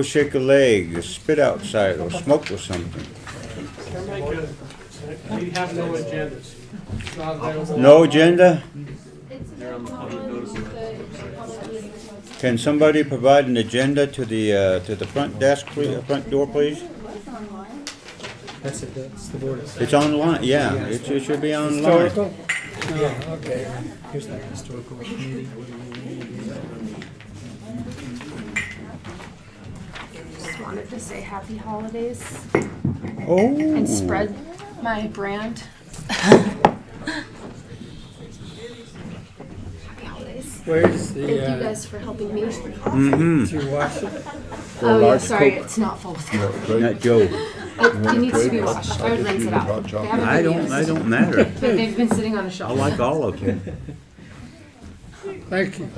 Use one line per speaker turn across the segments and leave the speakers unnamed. Go shake a leg, or spit outside, or smoke or something.
They're making, we have no agendas. It's not available.
No agenda?
It's
Can somebody provide an agenda to the, uh, to the front desk, please, uh, front door, please?
online.
That's it, that's the border.
It's online, yeah, it should- it should be online.
Historical? Yeah, okay. Here's that historical committee.
Just wanted to say happy holidays
Oh,
and spread my brand. Happy holidays.
Where's
Thank you
the, uh,
guys for helping me.
mm-hmm,
to wash it?
Oh yeah, sorry, it's not full of it,
not Joe.
it needs to be washed. I would rinse it out. They haven't
I
been
don't,
used,
I don't matter.
But they've been sitting on a
I
shelf.
like all of you.
Thank you.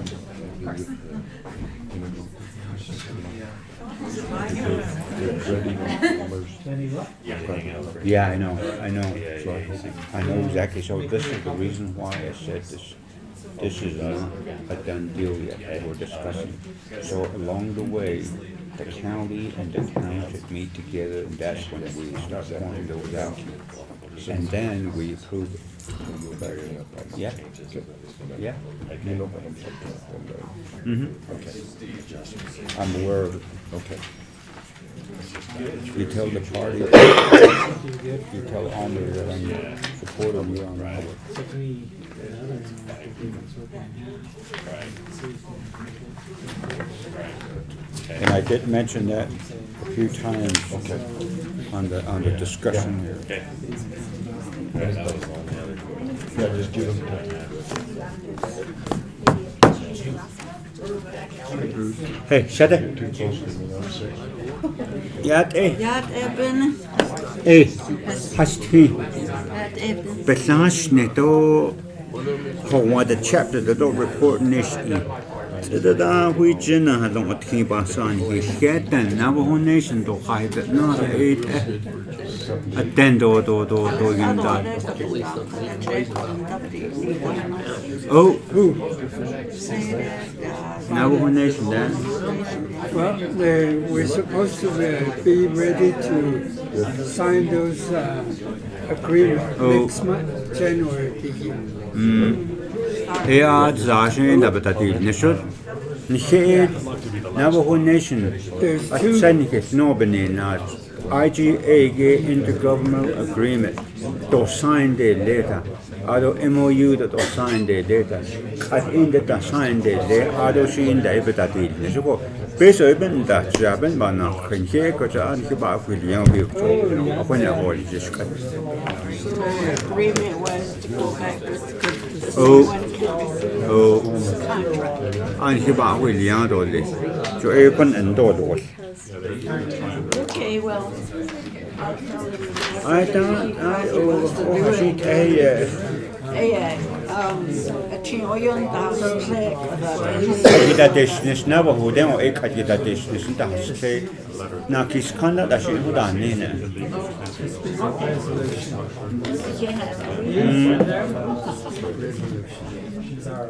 Yeah, I know, I know. I know exactly, so this is the reason why I said this, this is not a done deal yet, that we're discussing. So along the way, the county and the town should meet together, and that's when we start pointing those out. And then we approve it. Yeah, yeah. Mm-hmm. I'm aware of it. Okay. You tell the party, you tell Almer that I'm supporting you on that. And I did mention that a few times on the, on the discussion here. Hey, shut up. Yat, eh,
Ja, det är Ben.
eh, hast he.
Det är Ben.
Bethlehem neto Hawaii the chapter the dog report nation. Da da we jina ha long at ki ba san he shed and Navajo nation do khai that na it attendo do do do yin
Hallå,
da.
det är Kapitan. Jag träffade inte april.
Oh, ooh, Navajo
Säger
nation then.
Well, they, we're supposed to uh, be ready to sign those, uh, agreements
Oh.
next month, January beginning.
He are zashin E da batati nishur. Nished Navajo nation.
There's
At
two-
Seneca no benin at IGA ge intergovernmental agreement. To sign the data. Ado MOU that to sign the data. At in the to sign the data ado shin da batati nishuko. Peso ibn da jaben ba na khinche ko cha an ki ba ku liang bi ko. Aponya ho ji shkat.
the agreement was to go back with
Oh.
the one council
Oh.
contract.
俺去把会领养到的，就二本人多多。
Okay, well,
I don't, I, oh, oh, I should, I,
yeah, um, jag tror ju inte han
uh,
spräcker.
kita desnis na ba hudan o ek kita desnis ta haste na kis khanda da shi hudan ne ne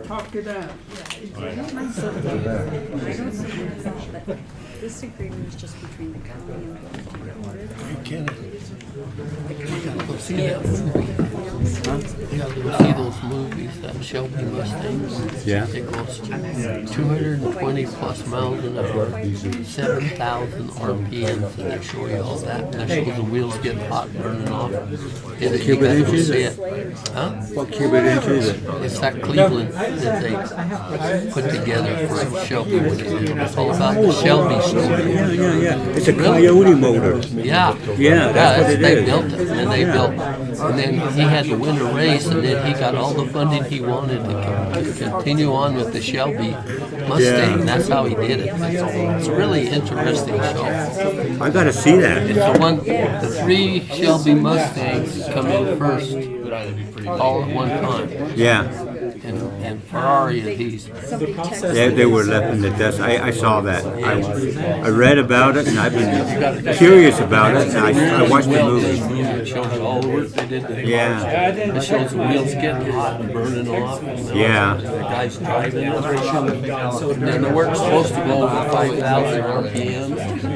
Talk it out.
This agreement is just between the county and the
You'll see that. Yeah, you'll see those movies, that Shelby Mustangs.
Yeah.
It goes two hundred and twenty plus miles an hour, seven thousand RPMs, and they show you all that. And they show the wheels getting hot, burning off. It- you
Cuban
guys will
inches?
see it. Huh?
what cuban inches
It's that Cleveland that they put together for Shelby. when they did it. It's all about the Shelby
yeah
story.
yeah yeah it's a coyote motor
Yeah.
yeah that's what
that's-
it
they
is
built it, and they built, and then he had to win a race, and then he got all the funding he wanted to con- continue on with the Shelby Mustang.
Yeah.
That's how he did it. It's a really interesting show.
i gotta see that
It's the one, the three Shelby Mustangs come in first, all at one time.
yeah
And, and Ferrari of these.
Somebody texted
They, they were left in the dust. I, I saw that. I, I read about it and I've been curious about it and I, I watched the
Well, they
movie.
moved It shows all the work they did. to-
Yeah.
It shows the wheels getting hot and burning off. you know,
Yeah.
The guys driving. And they weren't supposed to go over five thousand RPM.